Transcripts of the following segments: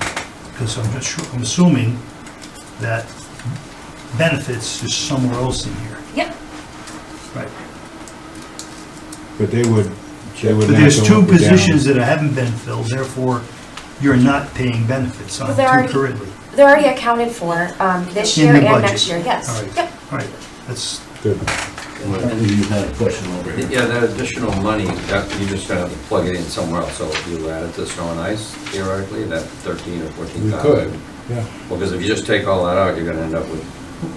because I'm just, sure- I'm assuming that benefits is somewhere else in here. Yep. Right. But they would, they would But not there's go two up or down. positions that haven't been filled, therefore you're not paying benefits on Well, they're too already- currently. They're already accounted for um, this In year the and budget. next year, All yes. right. Yep. All right, that's, Good. And you had a question over here. Yeah, that additional money, that, you're just gonna have to plug it in somewhere else, so if you add it to snow and ice theoretically, that thirteen or fourteen We thousand. could, yeah. Well, because if you just take all that out, you're gonna end up with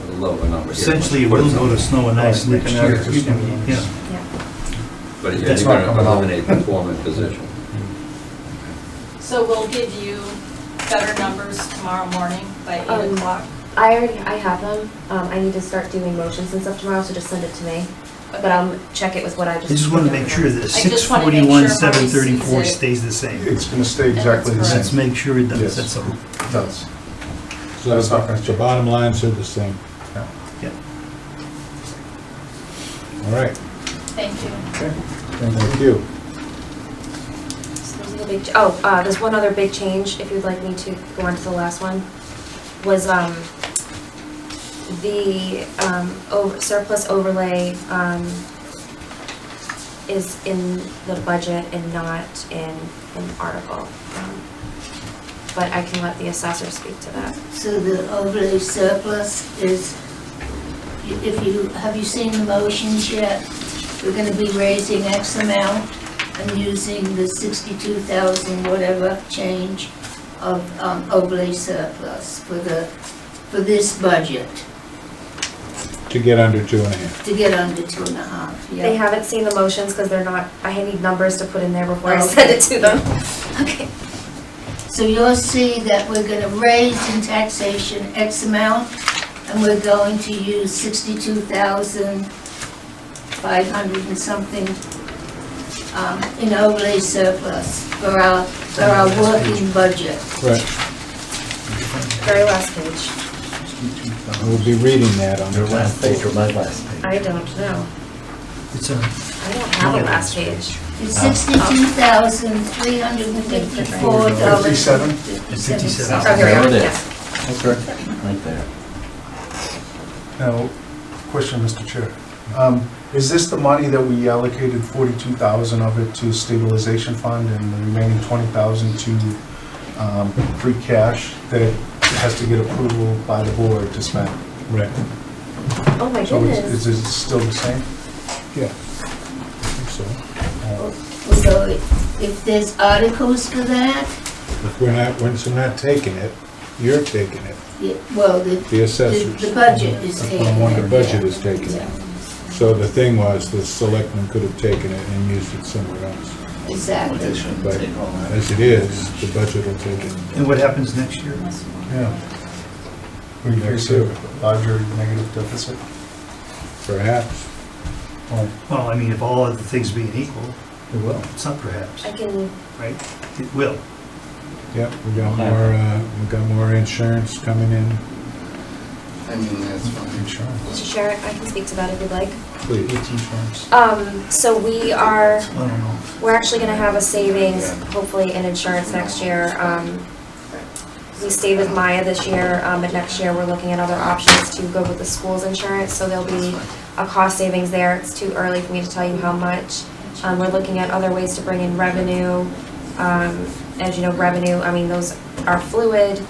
a lower number. here. essentially it will go to snow and ice Right, next they can year. add it to snow and ice. Yeah, Yeah. But yeah, That's you're not gonna coming out. eliminate the foreman position. So we'll give you better numbers tomorrow morning by eight Um, o'clock. I already, I have them. Um, I need to start doing motions and stuff tomorrow, so just send it to me. But I'll check it with what I I just. just want to make sure that I just wanna make sure 641, Marty 734 sees it. stays the same. It's gonna stay exactly the Let's same. make sure it does, Yes. that's all. It does. So That's not gonna the bottom line said the same. Yeah. Yeah. All right, Thank you. thank you. So those are the big ch- Oh, uh, there's one other big change, if you'd like me to go on to the last one, was, um, the, um, o- surplus overlay, um, is in the budget and not in an article. Um, But I can let the assessor speak to that. So the overlay surplus is, if you, have you seen the motions yet? We're gonna be raising X amount and using the sixty-two thousand whatever change of um, overlay surplus for the, for this budget, To get under two and a half. to get under two and a half, yeah? They haven't seen the motions because they're not, I need numbers to put in there before I send it to them. Oh. Okay. So you'll see that we're gonna raise in taxation X amount, and we're going to use sixty-two thousand five hundred and something um, in overlay surplus for our, for our working budget. Right, Very last page. we'll be reading that on Your the last page or my last I page? don't know. It's uh, a, I don't have a last page. It's sixty-two thousand three hundred and fifty-four dollars. Fifty-seven? Fifty-seven. Oh, here we There go, it is. yes. Right there. Now, question, Mr. Chair. Um, Is this the money that we allocated 42,000 of it to stabilization fund and the remaining 20,000 to um, free cash that has to get approval by the board to spend? Right, Oh my So is goodness. is it still the same? yeah. I think so. Uh, So if there's articles for that, If we're not, once we're not taking it, you're taking it, yeah, well, the, the the assessors. the budget is That's what I'm taken. wondering. The budget is taking it. So the thing was, the selectmen could have taken it and used it somewhere else. Well, Exactly. they shouldn't But take all that. as it is, the budget will take and it. what happens next year? Yeah. We face a larger negative deficit? Perhaps, Well, Well, I mean, if all other things being equal, it will. it's not perhaps, I can, right? It will. yep, we got more, uh, we got more insurance coming in, I mean, that's fine. Insurance. Mr. Sherrick, I can speak to that if you'd like. please. It's insurance. Um, so we are, I don't know. we're actually gonna have a savings, hopefully, in insurance next year. Um, we stayed with Maya this year, um, but next year, we're looking at other options to go with the school's insurance, so there'll be a cost savings there. It's too early for me to tell you how much. Um, we're looking at other ways to bring in revenue. Um, as you know, revenue, I mean, those are fluid.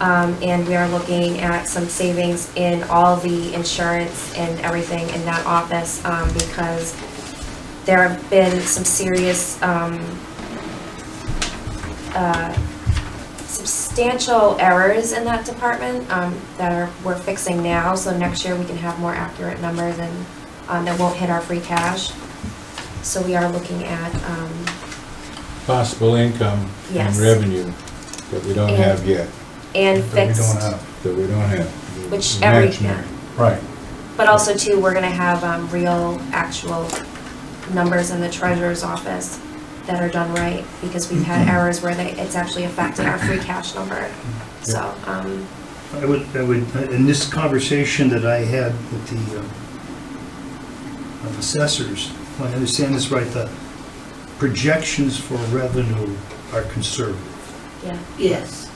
Um, and we are looking at some savings in all the insurance and everything in that office, um, because there have been some serious, um, uh, substantial errors in that department, um, that are, we're fixing now, so next year we can have more accurate numbers and, um, that won't hit our free cash. So we are looking at, um, Possible income and Yes. revenue that we don't have yet, and That we don't fixed, have. that we don't have. Which every- Imaginary. Right. but also too, we're gonna have, um, real, actual numbers in the treasurer's office that are done right, because we've had Mm-hmm. errors where they, it's actually affected our free cash number, Mm-hmm. so, um, I would, I would, in this conversation that I had with the uh, uh, assessors, if I understand this right, the projections for revenue are conservative. yeah. Yes.